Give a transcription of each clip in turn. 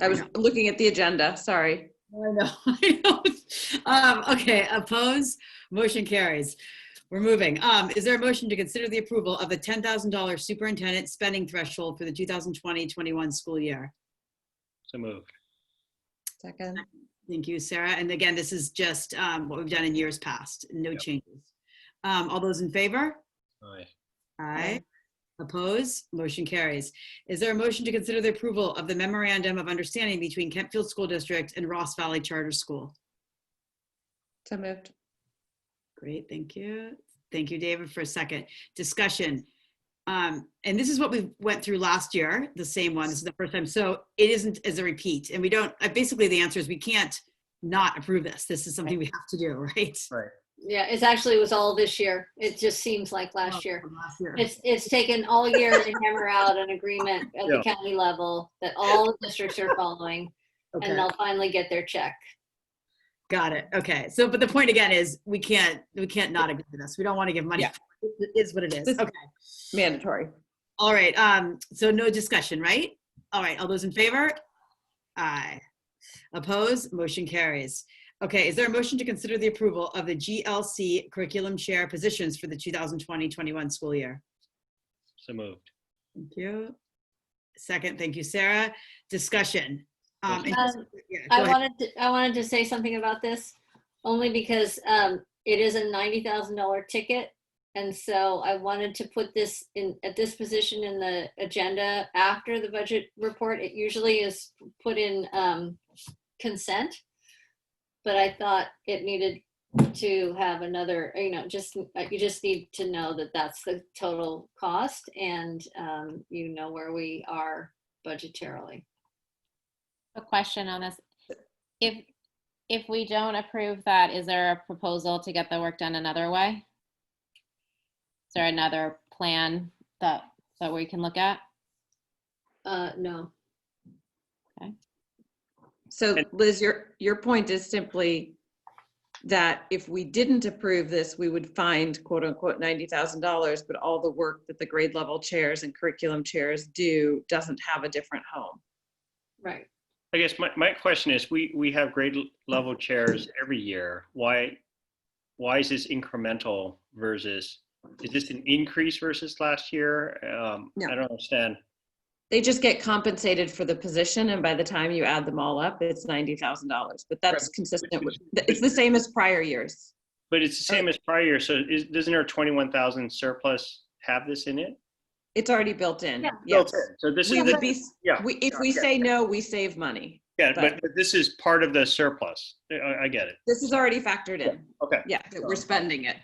I was know. looking at the agenda, sorry. Oh, I know, I know. Um, okay, oppose, motion carries. We're moving. Um, is there a motion to consider the approval of the ten thousand dollar superintendent spending threshold for the 2020-21 school year? So moved. Second, Thank you, Sarah. And again, this is just, um, what we've done in years past, no Yep. changes. Um, all those in favor? Aye. Aye. Oppose? Motion carries. Is there a motion to consider the approval of the memorandum of understanding between Kentfield School District and Ross Valley Charter School? so moved. Great, thank you. Thank you, David, for a second. Discussion. Um, and this is what we went through last year, the same one, this is the first time. So it isn't as a repeat and we don't, uh, basically the answer is we can't not approve this. This is something we have to do, right? Yeah, it's actually, it was all this year. It just seems like last year. Last year. It's, it's taken all year to hammer out an agreement at the county level that all the districts are following, Okay. and they'll finally get their check. Got it. Okay. So, but the point again is we can't, we can't not agree with this. We don't want to give money. Yeah. It is what it is. This- Okay. Mandatory. All right. Um, so no discussion, right? All right. All those in favor? Aye. Oppose? Motion carries. Okay. Is there a motion to consider the approval of the GLC curriculum chair positions for the 2020-21 school year? So moved. Thank you. Second. Thank you, Sarah. Discussion. Um, and- Um, yeah, go I ahead. wanted, to- I wanted to say something about this, only because um, it is a ninety thousand dollar ticket. And so I wanted to put this in, at this position in the agenda after the budget report. It usually is put in um, consent. But I thought it needed to have another, you know, just, you just need to know that that's the total cost and um, you know where we are budgetarily. a question on this. If, if we don't approve that, is there a proposal to get the work done another way? Is there another plan that, that we can look at? Uh, no. So Liz, your, your point is simply that if we didn't approve this, we would find quote unquote $90,000, but all the work that the grade level chairs and curriculum chairs do doesn't have a different home. Right. I guess my, my question is, we, we have grade l- level chairs every year. Why, why is this incremental versus, is this an increase versus last year? Um, No. I don't understand. They just get compensated for the position and by the time you add them all up, it's $90,000, but that's Right. consistent with, it's the same as prior years. But it's the Uh, same as prior year, so is, doesn't our 21,000 surplus have this in it? It's already built in, Yeah. yes. So this We is, would the- be, yeah, we- if we say no, we save money. yeah, but- but but this is part of the surplus. I- I, I get it. This is already factored in. Okay. Yeah, that we're spending it.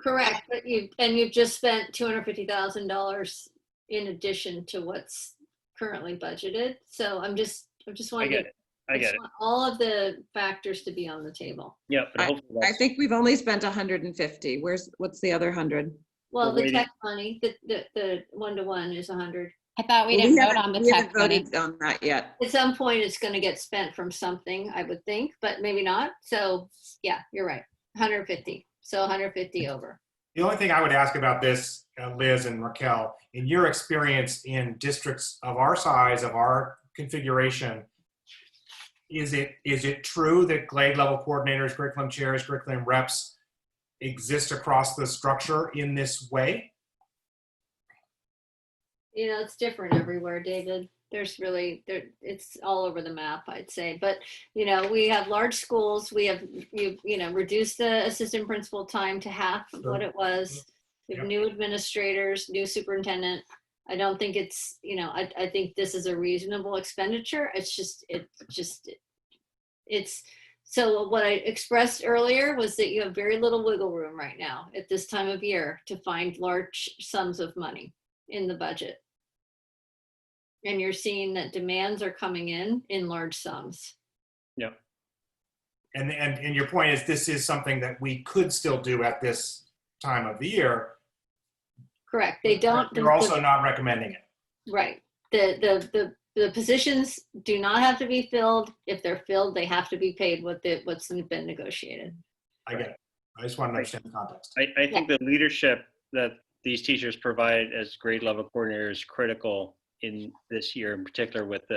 Correct, but you, and you've just spent two hundred fifty thousand dollars in addition to what's currently budgeted, so I'm just, I just I wanted. get to- it. I get just it. want All of the factors to be on the table. Yeah, but hopefully I that's, think we've only spent 150. Where's, what's the other 100? Well, We're the waiting. tech money, the, the, the one-to-one is a hundred. I thought we didn't vote on the We tech. haven't money. voted on that yet. At some point, it's gonna get spent from something, I would think, but maybe not, so, yeah, you're right, hundred fifty, so hundred fifty over. The only thing I would ask about this, uh, Liz and Raquel, in your experience in districts of our size, of our configuration, is it, is it true that grade level coordinators, curriculum chairs, curriculum reps exist across the structure in this way? You know, it's different everywhere, David. There's really there it's all over the map, I'd say. But you know, we have large schools, we have you you know, reduced the assistant principal time to half of what Sure. it was. We have Yep. new administrators, new superintendent. I don't think it's, you know, I I think this is a reasonable expenditure. It's just it just it's so what I expressed earlier was that you have very little wiggle room right now at this time of year to find large sums of money in the budget. And you're seeing that demands are coming in in large sums. And, and, and your point is this is something that we could still do at this time of the year. Correct. They don't. You're also not recommending it. Right. The, the, the, the positions do not have to be filled. If they're filled, they have to be paid what the, what's been negotiated. I get it. I just want to understand the context. I, I think the leadership that these teachers provide as grade level coordinators is critical in this year in particular with the